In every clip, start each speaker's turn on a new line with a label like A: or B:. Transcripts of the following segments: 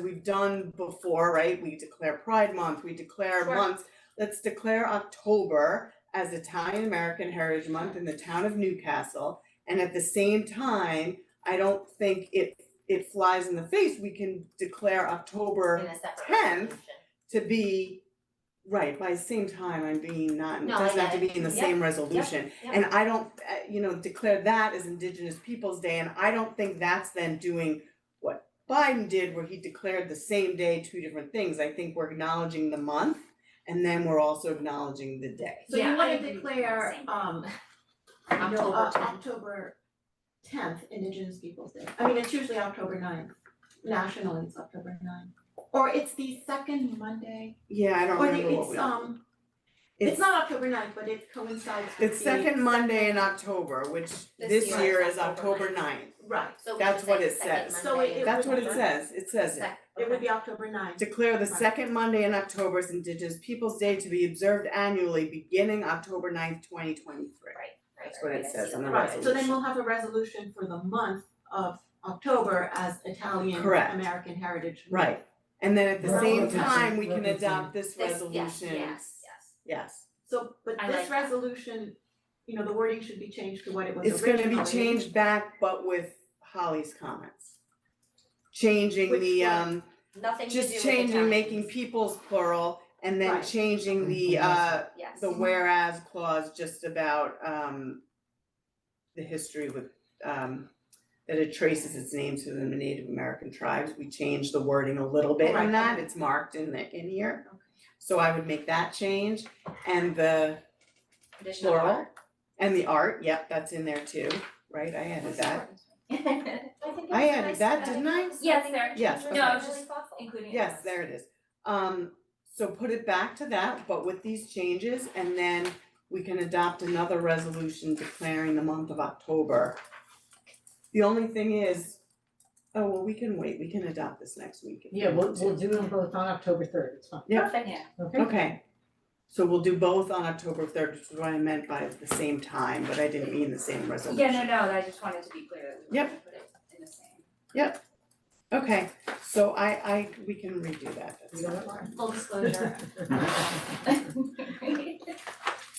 A: we've done before, right? We declare Pride Month, we declare
B: Sure.
A: months. Let's declare October as Italian American Heritage Month in the town of Newcastle. And at the same time, I don't think it, it flies in the face. We can declare
B: in
A: October
B: a separate
A: tenth,
B: resolution.
A: to be, right, by the same time, I'm being not, it
B: No, I
A: doesn't have to
B: get it.
A: be in the
B: Yep,
A: same resolution.
B: Yep.
A: And I don't, uh, you know, declare that as Indigenous Peoples' Day, and I don't think that's then doing what Biden did, where he declared the same day two different things. I think we're acknowledging the month, and then we're also acknowledging the day.
C: So you
B: Yeah, I
C: wanna
B: agree.
C: declare
B: Same.
C: um no,
B: October
C: uh,
B: tenth.
C: October tenth Indigenous Peoples' Day. I mean, it's usually October 9th. Nationally, it's October 9th. Or it's the second Monday,
A: Yeah, I don't
C: or
A: remember
C: the
A: what
C: it's
A: we.
C: um, it's not October 9th, but it coincides with the.
A: It's second Monday in October, which this year is October
B: 9th.
A: ninth.
C: Right,
B: So we
A: That's
B: should
A: what
B: say
A: it
B: second
A: says.
C: So
B: Monday
C: it-
B: in
A: That's what it
B: October.
A: says, it says it.
B: Sec-
C: it would
B: okay.
C: be October 9th.
A: Declare the second Monday in October as Indigenous Peoples' Day to be observed annually beginning October 9th, twenty twenty-three.
B: Right,
A: That's what
B: right,
A: it
B: I see
A: says in
B: that.
A: the
C: Right, so then
A: resolution.
C: we'll have a resolution for the month of October as Italian
A: Correct.
C: American Heritage. Month.
A: Right, and then at the
C: Right.
A: same
C: Represent-
A: time, we can
D: represent.
A: adopt this
B: This-
A: resolution.
B: yes, yes, yes.
A: Yes.
C: So, but
B: I like
C: this
B: that.
C: resolution, you know, the wording should be changed to what it was
A: It's gonna be
C: originally.
A: changed back, but with Holly's comments. Changing
C: Which
A: the
C: one?
A: um,
B: Nothing to do
A: just
B: with
A: changing, making
B: Italians.
A: peoples plural, and then
C: Right.
A: changing the
D: Mhm.
A: uh,
B: Yes.
A: the whereas clause just about um. The history with um, that it traces its name to the Native American tribes, we changed the wording a little bit
C: Right.
A: in that, it's marked in the, in here. So I would make that change, and the
B: Traditional
A: plural, and the art, yep, that's in there too, right, I added that.
B: art.
A: I added that, didn't I?
B: Yes, there.
A: Yes,
B: No, I was
A: okay.
B: just including. it.
A: Yes, there it is. Um, so put it back to that, but with these changes, and then we can adopt another resolution declaring the month of October. The only thing is, oh, well, we can wait, we can adopt this next week if we
D: Yeah, we'll,
A: want to.
D: we'll do them both on October third, it's fine,
A: Yeah.
B: Perfect.
D: okay?
A: Okay, so we'll do both on October third, which is what I meant by the same time, but I didn't mean the same resolution.
B: Yeah, no, no, I just wanted to be clear that we were
A: Yep.
B: gonna put it in the same.
A: Okay, so I, I, we can redo that, that's
D: We don't
A: not-
D: mind.
B: Full disclosure.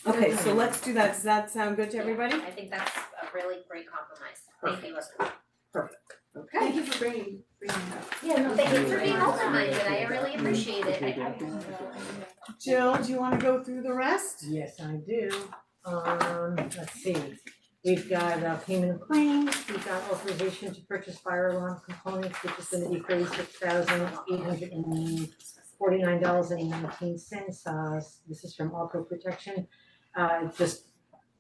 A: Okay, so let's do that, does that sound good to everybody?
B: I think that's a really great compromise. Thank you, Leslie.
A: Okay.
C: Thank you for bringing bringing that.
B: Yeah, no, thank you for being
C: Thank you.
B: open-minded. I really appreciate it. I- I-
A: Jill, do you wanna go through the rest?
D: Yes, I do, um, let's see, we've got uh payment of claims, we've got authorization to purchase fire alarm components, which is gonna be thirty-six thousand eight hundred and forty-nine dollars and nineteen cents, uh, this is from Arco Protection. Uh, just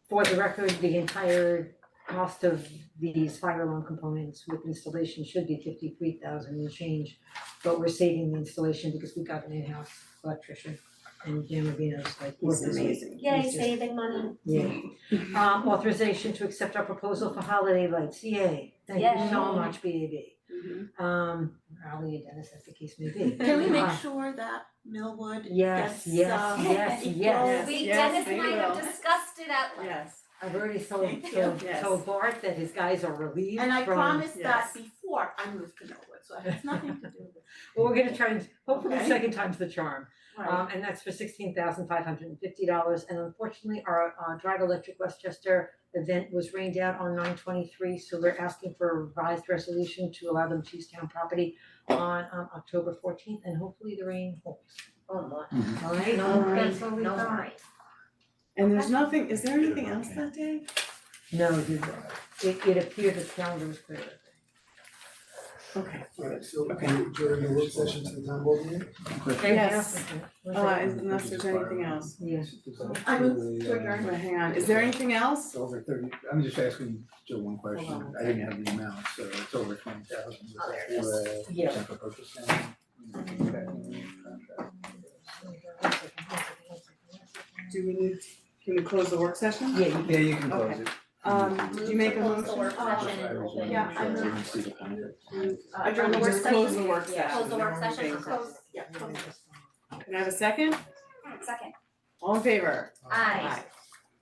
D: for the record, the entire cost of these fire alarm components with installation should be fifty-three thousand and change, but we're saving the installation because we got an in-house electrician, and Dan Rubino's like,
A: He's
D: working with
A: amazing.
B: Yay, saving money.
D: yeah.
C: Mm-hmm.
D: Um, authorization to accept our proposal for holiday lights, yay, thank you so
B: Yay.
D: much, B A B.
A: Mm-hmm.
D: Um, Rowley and Dennis, as the case may be.
C: Can we
D: Uh,
C: make sure that Millwood
D: Yes,
C: gets
D: yes,
C: um
D: yes, yes.
B: We,
A: yes,
B: Dennis and I
A: we
B: have
A: will.
B: discussed it at length.
A: Yes.
D: I've already told,
C: Thank you.
D: told,
A: Yes.
D: told Bart that his guys are relieved
C: And I
D: from-
C: promised
A: yes.
C: that before I moved to Millwood, so it has nothing to do with,
D: Well, we're gonna try and, hopefully
A: Okay.
D: second time's the charm,
C: right,
D: um, and that's for sixteen thousand five hundred and fifty dollars, and unfortunately, our, uh, Drive Electric Westchester event was rained out on nine twenty-three, so we're asking for a revised resolution to allow them to use town property on, um, October fourteenth, and hopefully the rain holds,
B: Oh, my.
D: alright?
A: All right.
D: That's all we
B: No
D: got.
B: worries.
A: And there's nothing, is there anything else that day?
D: No, you, it, it appeared the calendar was clear.
A: Okay.
E: Alright, so
A: Okay.
E: during the work session to the town board meeting?
A: Yes.
D: Was
A: Uh,
D: it-
A: is- unless there's anything else.
D: Yeah.
C: I moved to adjourn.
A: Wait, hang on, is there anything else?
E: um, It's over thirty, I'm just asking Joe one
D: Hold
E: question,
D: on.
E: I didn't have the amount, so it's over twenty thousand, is
B: Oh, there
E: that
B: it
E: for a
D: Yeah.
E: potential purchase and-
A: Do we need, can we close the work session?
D: Yeah, you-
E: Yeah, you can close it.
A: Um, do you make a
B: Close the
A: motion?
B: work
C: Oh,
B: session and open.
C: Yeah, I
E: Sure,
C: moved.
E: didn't see the contract.
C: uh, adjourn the work
A: Just Close
C: session,
A: the work session.
B: Yeah. Close the work
A: We're in
B: session.
A: favor.
C: close, yeah, close.
A: Oh. Can I have a second?
B: Second.
A: All in favor?
B: Aye.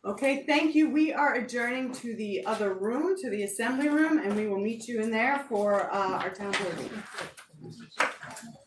A: Okay, thank you. We are adjourning to the other room, to the assembly room, and we will meet you in there for uh our town board meeting.
E: Aye.